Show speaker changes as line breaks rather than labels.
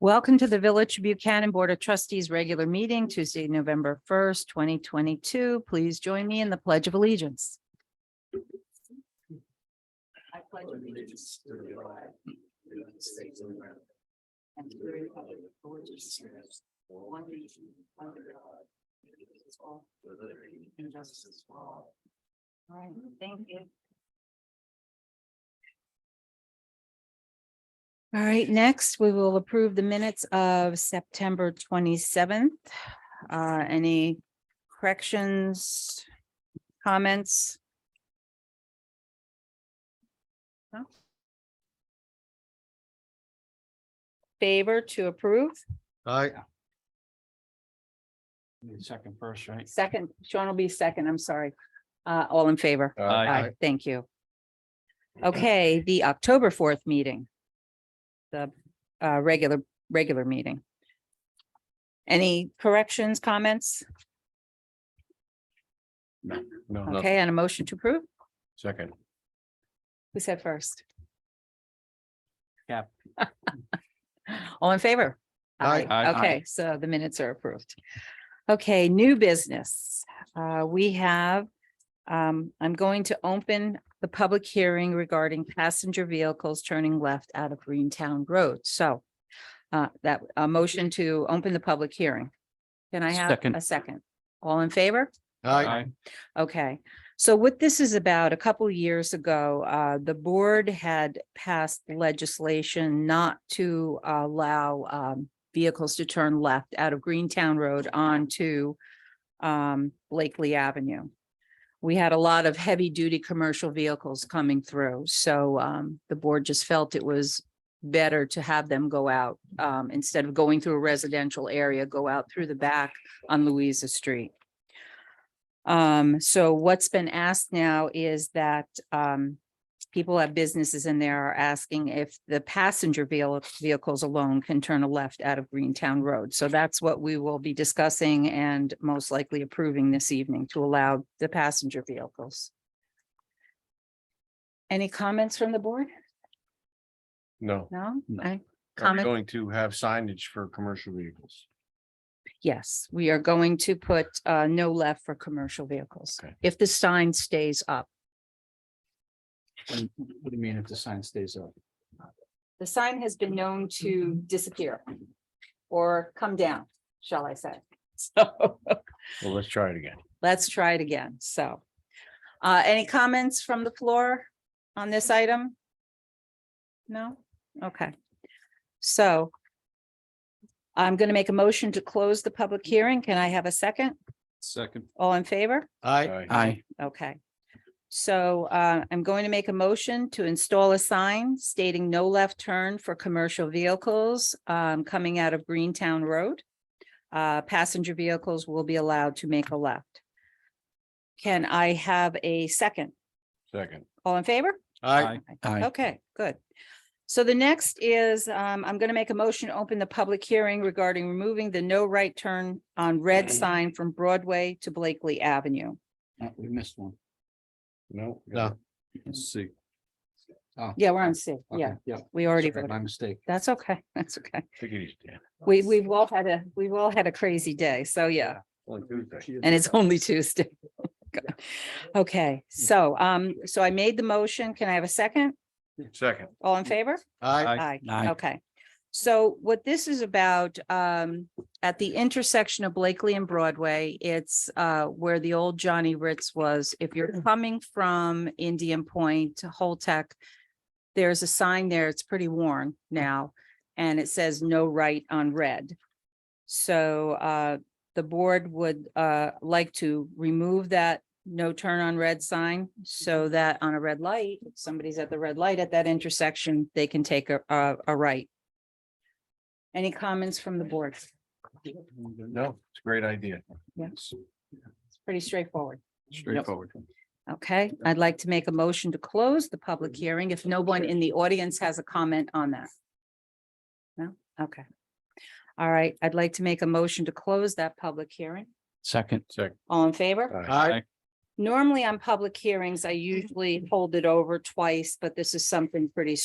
Welcome to the Village of Buchanan Board of Trustees Regular Meeting Tuesday, November first, twenty twenty-two. Please join me in the Pledge of Allegiance. I pledge allegiance to the flag of the United States of America and to the republic for which it stands, one nation, under God, indivisible, and justice for all. All right, thank you. All right, next, we will approve the minutes of September twenty-seventh. Uh, any corrections, comments? No? Favor to approve,
Aye. Second first, right?
second, Sean will be second, I'm sorry. Uh, all in favor? Aye, thank you. Okay, the October fourth meeting. The uh regular, regular meeting. Any corrections, comments?
No,
Okay, and a motion to approve?
second.
Who said first?
Yep.
All in favor?
Aye. Aye.
Okay, so the minutes are approved. Okay, new business. Uh, we have, um, I'm going to open the public hearing regarding passenger vehicles turning left out of Greentown Road. So uh, that, a motion to open the public hearing. Can I have
Second.
a second? All in favor?
Aye.
Okay, so what this is about, a couple years ago, uh, the board had passed legislation not to allow, um, vehicles to turn left out of Greentown Road onto, um, Blakely Avenue. We had a lot of heavy duty commercial vehicles coming through, so, um, the board just felt it was better to have them go out, um, instead of going through a residential area, go out through the back on Louisa Street. Um, so what's been asked now is that, um, people have businesses in there are asking if the passenger vehi- vehicles alone can turn a left out of Greentown Road. So that's what we will be discussing and most likely approving this evening to allow the passenger vehicles. Any comments from the board?
No.
No?
No.
I-
I'm
Comment?
going to have signage for commercial vehicles.
Yes, we are going to put, uh, no left for commercial vehicles.
Okay.
If the sign stays up.
What do you mean if the sign stays up?
The sign has been known to disappear or come down, shall I say. So
Well, let's try it again.
let's try it again. So uh, any comments from the floor on this item? No? Okay. So I'm going to make a motion to close the public hearing. Can I have a second?
Second.
All in favor?
Aye.
Aye,
Okay. So uh, I'm going to make a motion to install a sign stating no left turn for commercial vehicles um, coming out of Greentown Road. Uh, Passenger vehicles will be allowed to make a left. Can I have a second?
Second.
All in favor?
Aye.
aye,
Okay, good. So the next is, um, I'm gonna make a motion to open the public hearing regarding removing the no right turn on red sign from Broadway to Blakely Avenue.
Uh, we missed one.
No. No.
Let's see.
Yeah, we're on C. Yeah,
Yeah.
we already
Sorry,
voted.
My mistake.
That's okay, that's okay.
Take it easy, Dan.
We, we've all had a, we've all had a crazy day, so yeah, and it's only Tuesday. Okay, so, um, so I made the motion, can I have a second?
Second.
All in favor?
Aye.
Aye.
Aye.
Okay. So what this is about, um, at the intersection of Blakely and Broadway, it's, uh, where the old Johnny Ritz was. If you're coming from Indian Point to Holtec, there's a sign there. It's pretty worn now, and it says no right on red. So, uh, the board would, uh, like to remove that no turn on red sign so that on a red light, if somebody's at the red light at that intersection, they can take a, a, a right. Any comments from the board? It's
No, it's a great idea.
Yes. pretty straightforward.
Straightforward.
Okay, I'd like to make a motion to close the public hearing if no one in the audience has a comment on that. No, okay. All right, I'd like to make a motion to close that public hearing.
Second,
Second.
All in favor?
Uh.
Aye.
Normally on public hearings, I usually hold it over twice, but this is something pretty